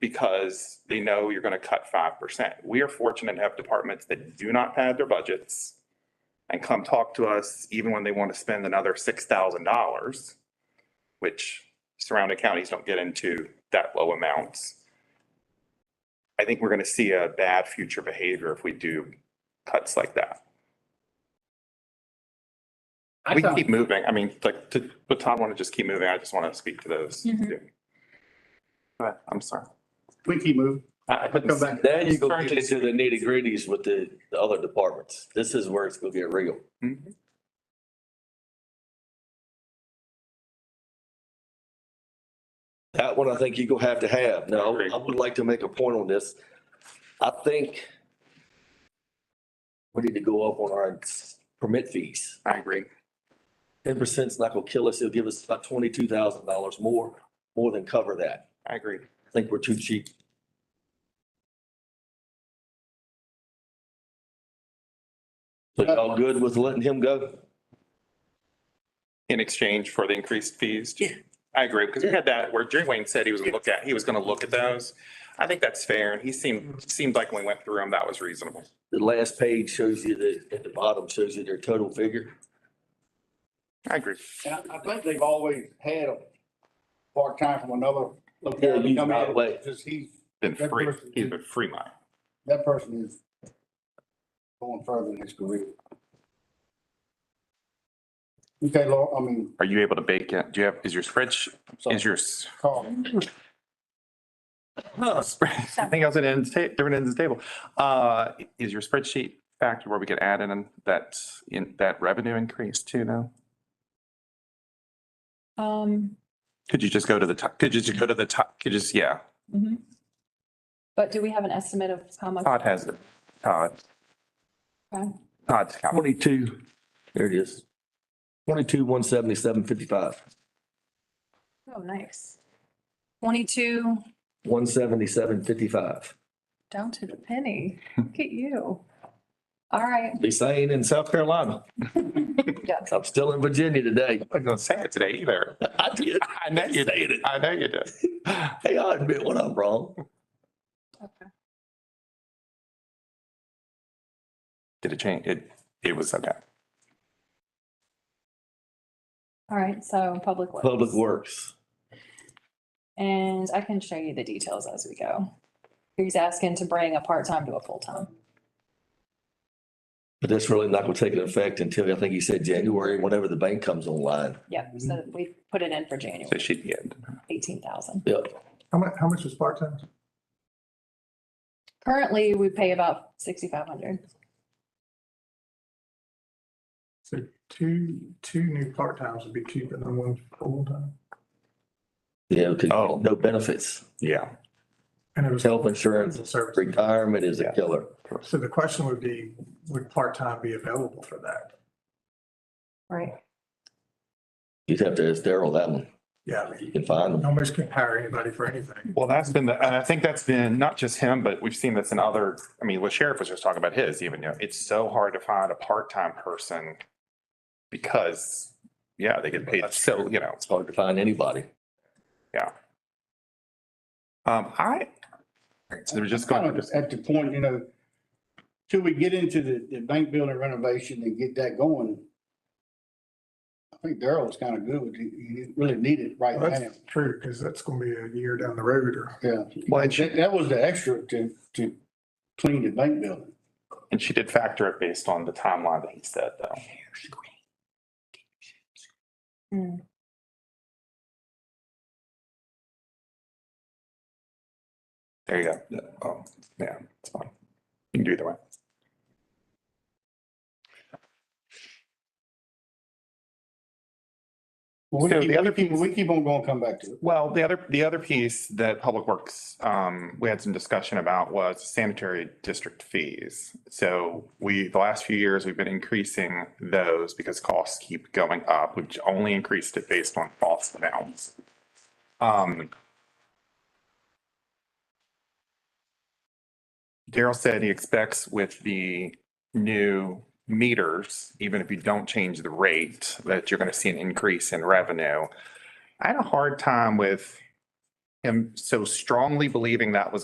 because they know you're going to cut five percent. We are fortunate to have departments that do not pad their budgets and come talk to us even when they want to spend another six thousand dollars, which surrounding counties don't get into that low amounts. I think we're going to see a bad future behavior if we do cuts like that. I We thought- keep moving. I mean, like, to, but Todd want to just keep moving. I just want to speak to those. Mhm. too. Go ahead. I'm sorry. We keep moving. I- I couldn't Come see- back. Then you go get into the nitty gritties with the, the other departments. This is where it's gonna get real. Mhm. That one I think you gonna have to have. Now, agree. I would like to make a point on this. I think we need to go up on our permit fees. I agree. Ten percent's not gonna kill us. It'll give us about twenty-two thousand dollars more, more than cover that. I agree. I think we're too cheap. So y'all good with letting him go? In exchange for the increased fees? Yeah. I agree, because we had that where Jerry Wayne said he was gonna look at, he was gonna look at those. I think that's fair, and he seemed, seemed like when we went through them, that was reasonable. The last page shows you the, at the bottom shows you their total figure. I agree. And I I think they've always had a part-time from another Yeah, locality you come got in. away. Just he's, Been That free, person- he's been free mine. that person is going further in his career. Okay, Laura, I mean, Are you able to bake it? Do you have, is your spreadsheet, I'm sorry, your? Carl. I think I was at ends, ta- different ends of the table. Uh, is your spreadsheet factor where we could add in that, in that revenue increase too now? Um, Could you just go to the top, could you just go to the top, could you just, yeah, mhm. But do we have an estimate of how much? Todd has it, Todd. Okay. Todd's got it. Twenty-two. There it is. Twenty-two, one seventy-seven, fifty-five. Oh, nice. Twenty-two One seventy-seven, fifty-five. down to the penny. Look at you. All right. At least I ain't in South Carolina. Yeah. I'm still in Virginia today. I wasn't gonna say it today either. I did. I know you Say did. it. I know you did. Hey, I admit when I'm wrong. Okay. Did it change? It, it was okay. All right, so public works. Public Works. And I can show you the details as we go. He's asking to bring a part-time to a full-time. But that's really not gonna take an effect until, I think he said January, whenever the bank comes online. Yep, so we put it in for So January, she did. eighteen thousand. Yep. How much, how much was part-time? Currently, we pay about sixty-five hundred. So two, two new part-times would be cheaper than one full-time. Yeah, because Oh. no benefits. Yeah. And it was Health insurance, service. retirement is Yeah. a killer. So the question would be, would part-time be available for that? Right. You'd have to ask Daryl that one. Yeah, I mean, You can find them. nobody's can hire anybody for anything. Well, that's been the, and I think that's been not just him, but we've seen this in other, I mean, what sheriff was just talking about his even, you know, it's so hard to find a part-time person because, yeah, they get paid. So, you know, It's hard to find anybody. um, I, so they're just kind going, of at the point, you know, till we get into the, the bank building renovation and get that going. I think Daryl was kind of good with, you, you really need it right Well, now, That's true, because that's gonna be a year down the road or. yeah. well, and she, That, that was the extra to, to clean the bank building. and she did factor it based on the timeline that he said though. Hmm. There you go. Yeah. Oh, yeah, it's fine. You can do either way. Well, So We the keep, other we keep, piece- we keep on going, come back to it. Well, the other, the other piece that Public Works, um, we had some discussion about was sanitary district fees. So we, the last few years, we've been increasing those because costs keep going up. We've only increased it based on cost amounts. Um. Daryl said he expects with the new meters, even if you don't change the rate, that you're gonna see an increase in revenue. I had a hard time with am so strongly believing that was